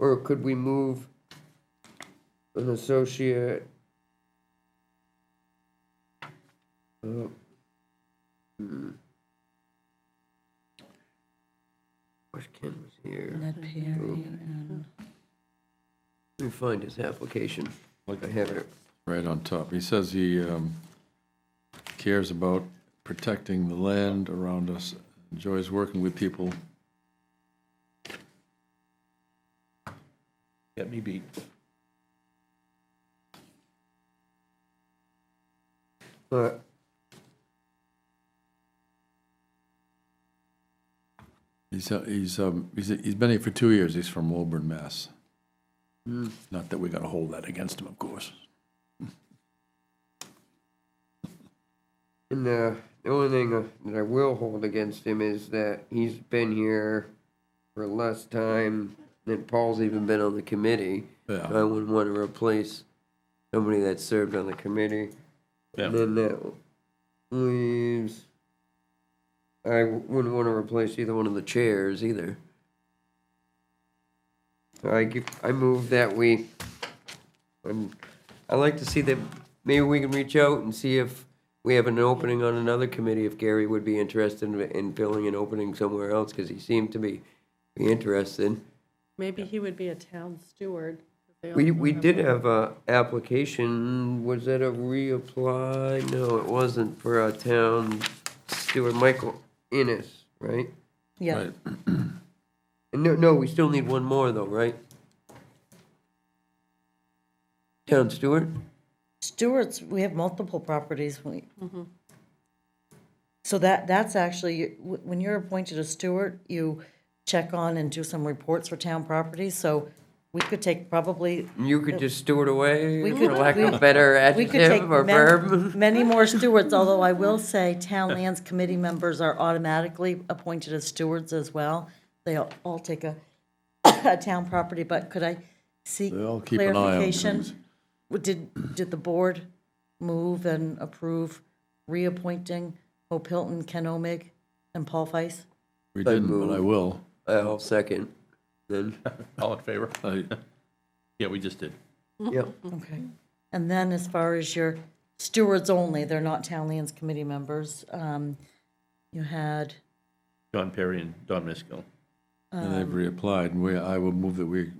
Or could we move an associate? Uh, hmm. Wish Ken was here. Mm-hmm. Ned Perry and Mm-hmm. Let me find his application. I have it. Right on top. He says he um, cares about protecting the land around us, enjoys working with people. Get me beat. But He's, uh, he's, um, he's, he's been here for two years. He's from Woburn, Mass. Hmm. Not that we gotta hold that against him, of course. And uh, the only thing uh, that I will hold against him is that he's been here for less time than Paul's even been on the committee. Yeah. So I wouldn't want to replace somebody that served on the committee. And Yeah, then that leaves. I wouldn't want to replace either one of the chairs either. So I give, I move that we. Um, I like to see that maybe we can reach out and see if we have an opening on another committee. If Gary would be interested in, in filling an opening somewhere else, because he seemed to be, be interested. Maybe he would be a town steward. They We, all we have did have a application, was that a reapply? No, it wasn't for a town steward, Michael Innes, right? Yeah, Right. And no, no, we still need one more though, right? Town steward? Stewart's, we have multiple properties. we- Mm-hmm. So that, that's actually, wh- when you're appointed a steward, you check on and do some reports for town properties. So we could take probably, You could just steward away, We for could- lack we- of better we could take adjective or man- verb. many more stewards, although I will say town lands committee members are automatically appointed as stewards as well. They all all take a, a town property, but could I seek They all keep an eye on clarification? things. What Did, did the board move and approve reappointing Hope Hilton, Ken Omig, and Paul Feist? We didn't, but I will. I'll second, then, all in favor? I, Yeah, we just did. yep. Okay. And then as far as your stewards only, they're not town lands committee members, um, you had, John Perry and Don Miskel. and they've reapplied, and we, I will move that we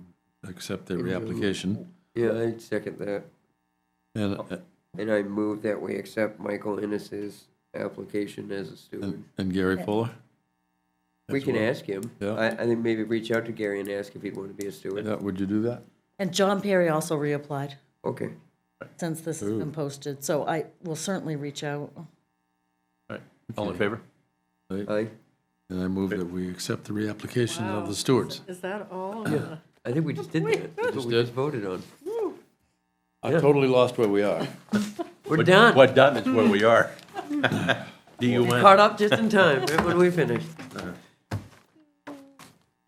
accept their reapplication. Yeah, I second that. And, uh, Oh. And I move that we accept Michael Innes's application as a steward. and- and Gary Fuller? We That's can what- ask him. Yeah. I, I think maybe reach out to Gary and ask if he'd want to be a steward. Yeah, would you do that? and John Perry also reapplied Okay. since this has been posted, so I will certainly reach out. All right, all in favor? I, And I move that we accept the reapplication of the stewards. is that all? I think we just did that. That's what we did? just voted on. I totally lost where we are. We're done. What done is where we are. Do you win? Caught up just in time, right when we finished.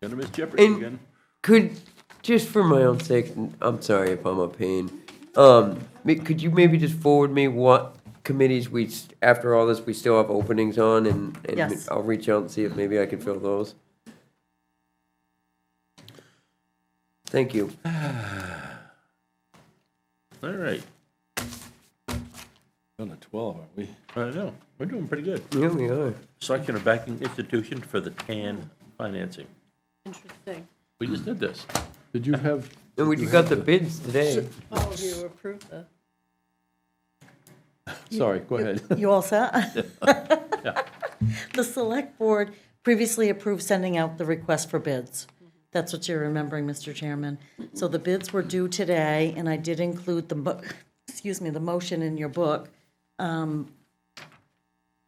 Gonna miss Jeopardy And- again. Could, just for my own sake, I'm sorry if I'm a pain. Um, ma- could you maybe just forward me what committees we, s- after all this, we still have openings on and, and Yes. I'll reach out and see if maybe I can fill those? Thank you. All right, On a 12, aren't we? I know, we're doing pretty good. Yeah, we are. Selection of backing institution for the TAN financing. Interesting. We just did this. Did you have, And we got the bids today. All of you approve the, sorry, go ahead. You all set? The select board previously approved sending out the request for bids. That's what you're remembering, Mr. Chairman. So the bids were due today, and I did include the, mo- excuse me, the motion in your book. Um,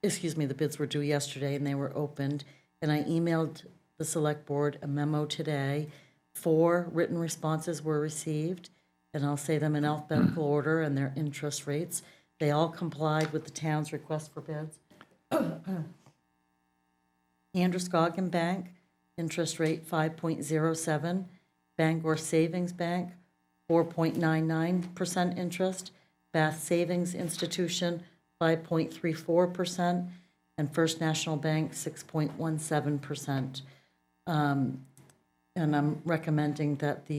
Excuse me, the bids were due yesterday and they were opened. And I emailed the select board a memo today. Four written responses were received, and I'll say them in alphabetical order and their interest rates. They all complied with the town's request for bids. Androscoggin Bank, interest rate five point zero seven. Bangor Savings Bank, four point nine nine percent interest. Bath Savings Institution, five point three four percent. And First National Bank, six point one seven percent. And I'm Um, recommending that the